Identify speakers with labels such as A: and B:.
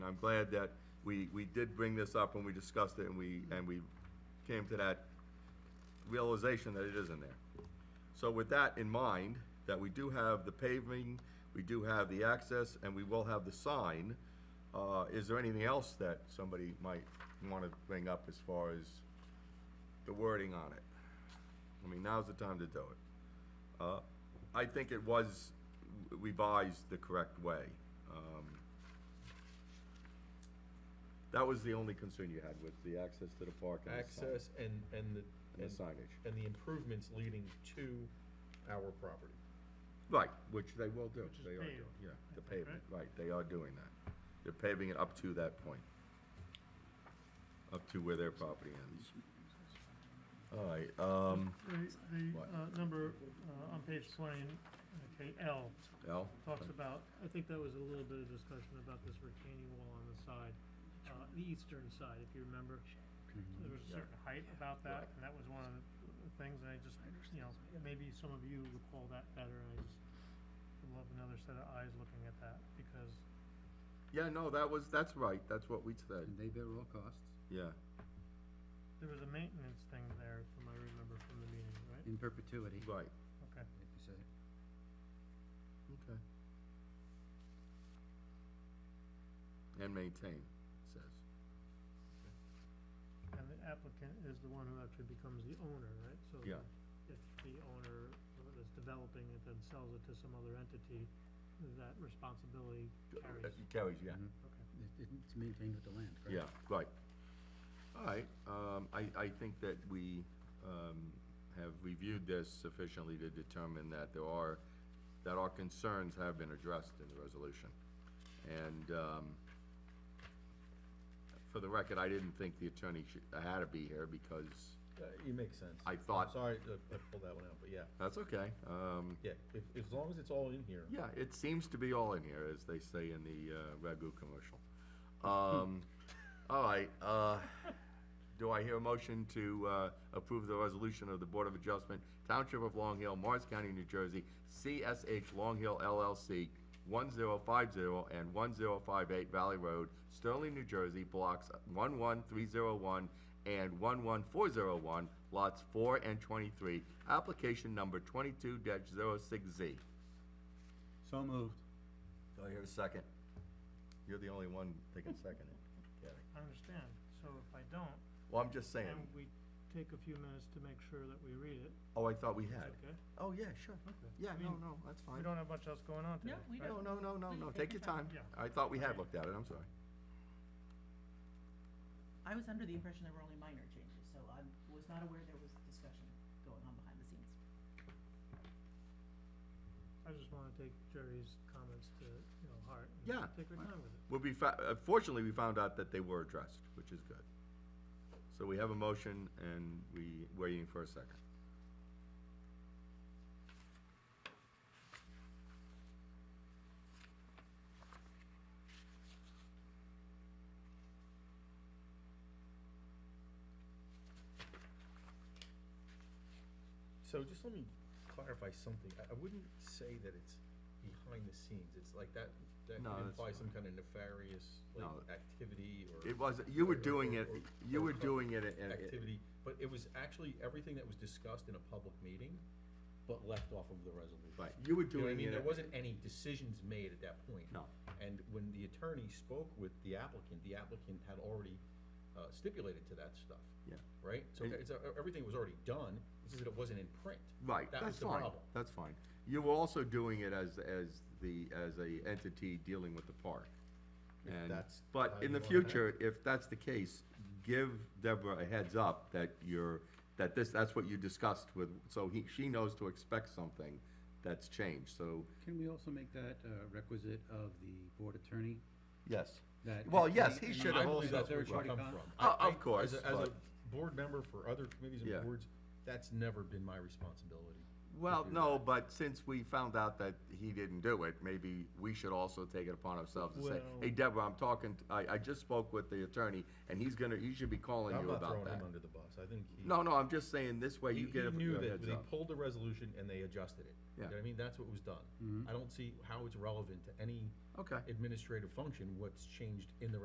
A: I'm glad that we, we did bring this up when we discussed it and we, and we came to that realization that it is in there. So with that in mind, that we do have the paving, we do have the access, and we will have the sign, uh, is there anything else that somebody might wanna bring up as far as the wording on it? I mean, now's the time to do it. Uh, I think it was revised the correct way. Um, That was the only concern you had with the access to the park and the sign-
B: Access and, and the, and,
A: And the signage.
B: and the improvements leading to our property.
A: Right, which they will do.
C: Which is
A: They are
C: paved,
A: doing, yeah,
C: I
A: the
C: think,
A: pavement, right, they are doing that. They're paving it up to that point. Up to where their property ends. All right, um,
C: The, the,
A: What?
C: uh, number, uh, on page twenty, okay, L,
A: Al?
C: talks about, I think that was a little bit of discussion about this retaining wall on the side, uh, the eastern side, if you remember.
A: Mm-hmm.
C: There was a certain height about that, and that was one of the things, and I just, you know, maybe some of you recall that better, and I just would love another set of eyes looking at that, because
A: Yeah, no, that was, that's right, that's what we said,
D: And they bear all costs,
A: yeah.
C: there was a maintenance thing there, from I remember from the meeting, right?
D: in perpetuity, like
A: Right,
C: Okay.
D: you said.
A: okay. And maintain, says.
C: And the applicant is the one who actually becomes the owner, right? So
A: Yeah.
C: If the owner is developing it, then sells it to some other entity, that responsibility
A: Uh,
C: carries.
A: Carries, yeah.
D: Mhm.
C: Okay.
D: It- It's maintained with the land, correct?
A: Yeah, right. All right, um, I, I think that we, um, have reviewed this sufficiently to determine that there are, that our concerns have been addressed in the resolution. And, um, for the record, I didn't think the attorney should, had to be here because,
E: Uh, It makes sense.
A: I
E: I'm
A: thought-
E: Sorry, uh, I I pulled that one out, but yeah,
A: that's okay, um,
E: yeah, if, if- as long as it's all in here.
A: yeah, it seems to be all in here, as they say in the, uh, Ragu commercial. Um, all right, uh, do I hear a motion to, uh, approve the resolution of the Board of Adjustment, Township of Long Hill, Morris County, New Jersey, CSH Long Hill LLC, one zero five zero and one zero five eight Valley Road, Sterling, New Jersey, blocks one one three zero one and one one four zero one, lots four and twenty-three, application number twenty-two 6 Z.
D: So moved.
A: Do I hear a second? You're the only one taking second it. Gary.
C: I understand. So if I don't,
A: Well, I'm just saying,
C: and we take a few minutes to make sure that we read it,
A: oh, I thought we had.
C: it's okay?
A: Oh, yeah, sure. Yeah, no,
C: I mean,
A: no, that's
C: We
A: fine.
C: don't have much else going on today.
F: No, we
C: right?
A: No,
F: don't.
A: no, no, no,
F: Please
A: no,
F: take
A: take your
F: your
A: time.
C: Yeah.
A: I thought we had looked at it, I'm sorry.
F: I was under the impression there were only minor changes, so I was not aware there was discussion going on behind the scenes.
C: I just wanna take Jerry's comments to, you know, heart
A: Yeah.
C: and take our time with it.
A: Well, we fa- uh, fortunately, we found out that they were addressed, which is good. So we have a motion and we waiting for a second.
E: So just let me clarify something. I, I wouldn't say that it's behind the scenes. It's like that, that
A: No,
E: could
A: that's
E: imply some
A: fine.
E: kind of nefarious, like,
A: No.
E: activity or.
A: It was, you were
E: or- or-
A: doing it,
E: or-
A: you
E: or
A: were
E: co-
A: doing it, and,
E: Activity, but it was actually everything that was discussed in a public meeting, but left off of the resolution.
A: right, you were
E: You know what I
A: doing
E: mean? There
A: it,
E: wasn't any decisions made at that point.
A: No.
E: And when the attorney spoke with the applicant, the applicant had already uh, stipulated to that stuff,
A: yeah,
E: right? So
A: And-
E: it's, uh, everything was already done, it's just that it wasn't in print.
A: right,
E: That was
A: that's
E: the
A: fine,
E: problem.
A: that's fine. You were also doing it as, as the, as a entity dealing with the park.
E: If
A: And,
E: that's
A: but
E: how
A: in
E: you
A: the
E: wanna act.
A: future, if that's the case, give Deborah a heads up that you're, that this, that's what you discussed with, so he, she knows to expect something that's changed, so,
D: Can we also make that uh, requisite of the board attorney?
A: yes.
D: That
A: Well,
D: if
A: yes,
D: any-
A: he
D: any-
A: should
E: I
A: have
E: believe
A: also.
E: that's where it should
D: third-party
E: come
D: con-
E: from.
A: Uh,
E: I-
A: of
E: I- as a-
A: course,
E: As a
A: but-
E: board member for other committees
A: Yeah.
E: and boards, that's never been my responsibility.
A: Well, no, but since we found out that he didn't do it, maybe we should also take it upon ourselves and say, hey, Deborah, I'm talking, t- I, I just spoke with the attorney, and he's gonna, he should be calling
E: I'm
A: you
E: not
A: about
E: throwing him
A: that.
E: under the bus. I think he.
A: No, no, I'm just saying, this way
E: He
A: you
E: he
A: get a
E: knew
A: a
E: that
A: heads
E: they
A: up.
E: pulled the resolution and they adjusted it.
A: Yeah.
E: You know
A: Mm-hmm.
E: what I mean, that's what was done. I don't see how it's relevant to any
A: Okay.
E: administrative function, what's changed in the